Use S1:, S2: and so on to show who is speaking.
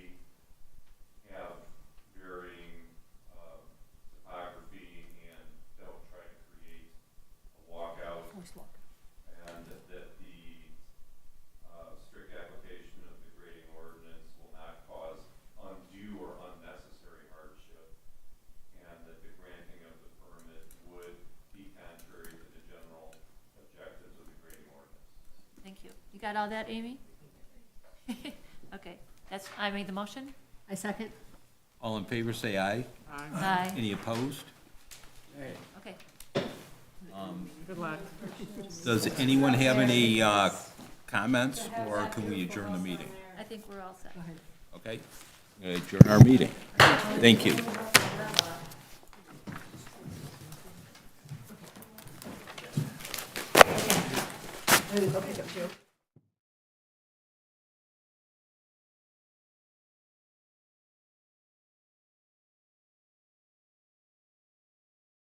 S1: allow that, Amy? Okay, that's, I made the motion?
S2: I second.
S3: All in favor, say aye.
S1: Aye,
S3: Any opposed?
S1: okay.
S4: Good luck.
S3: Does anyone have any uh, comments, or can we adjourn the meeting?
S1: I think we're all set.
S3: Okay? Adjourn our meeting. Thank you.